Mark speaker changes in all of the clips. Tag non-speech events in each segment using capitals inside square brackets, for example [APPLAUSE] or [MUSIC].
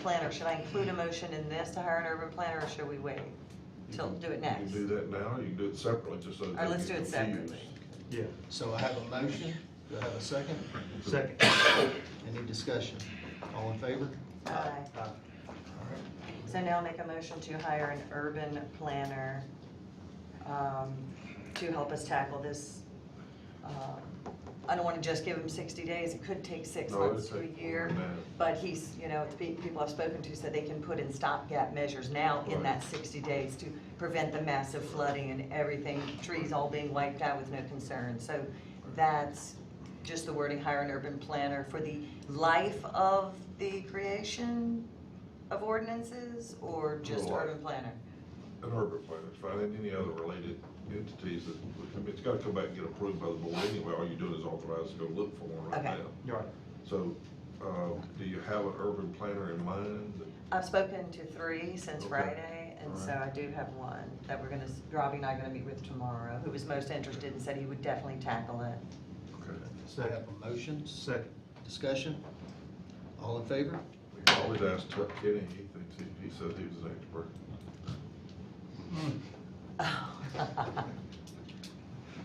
Speaker 1: planner, should I include a motion in this to hire an urban planner, or should we wait till, do it
Speaker 2: You
Speaker 1: next?
Speaker 2: can do that now, or you can do it separately, just so.
Speaker 1: All right, let's do it separately.
Speaker 3: Yeah.
Speaker 4: So I have a motion, do I have a second?
Speaker 3: Second.
Speaker 4: Any discussion? All in favor?
Speaker 1: Aye.
Speaker 3: Uh,
Speaker 1: So now make a motion to hire an urban planner um, to help us tackle this. um, I don't want to just give him 60 days, it could take six months to a year. But he's, you know, the pe- people I've spoken to said they can put in stopgap measures now in
Speaker 2: Right.
Speaker 1: that 60 days to prevent the massive flooding and everything, trees all being wiped out with no concern. So that's just the wording, hire an urban planner for the life of the creation of ordinances or just
Speaker 2: Right.
Speaker 1: urban planner?
Speaker 2: An urban planner, it's fine, and any other related entities that, I mean, it's gotta come back and get approved by the board anyway, all you're doing is authorized to go look for one right
Speaker 1: Okay.
Speaker 2: now.
Speaker 3: You're right.
Speaker 2: So, uh, do you have an urban planner in mind?
Speaker 1: I've spoken to three since
Speaker 2: Okay.
Speaker 1: Friday, and so
Speaker 2: Alright.
Speaker 1: I do have one that we're gonna, s- Robbie and I are gonna meet with tomorrow, who was most interested and said he would definitely tackle it.
Speaker 2: Okay.
Speaker 4: So I have a motion,
Speaker 3: Second.
Speaker 4: discussion? All in favor?
Speaker 2: We can always ask Chuck Kenny, he thinks, he, he says he was an expert.
Speaker 1: Oh.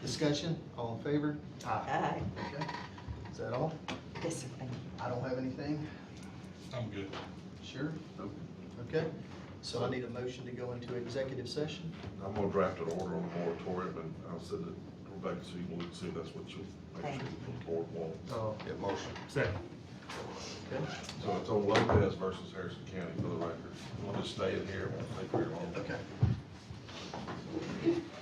Speaker 4: Discussion, all in favor?
Speaker 3: Aye.
Speaker 1: Aye.
Speaker 4: Okay. Is that all?
Speaker 1: [LAUGHS] Yes, sir, thank you.
Speaker 4: I don't have anything?
Speaker 5: I'm good.
Speaker 4: Sure? Okay. So I need a motion to go into executive session?
Speaker 2: I'm gonna draft an order on the moratorium, and I'll send it to Rebecca, so you can see if that's what you'll, make
Speaker 1: Thank
Speaker 2: sure the board wants.
Speaker 3: Oh,
Speaker 4: Get motion.
Speaker 3: second.
Speaker 4: Okay.
Speaker 2: So it's on Lopez versus Harrison County for the record. We'll just stay in here, it won't take very long.
Speaker 4: Okay. Oh,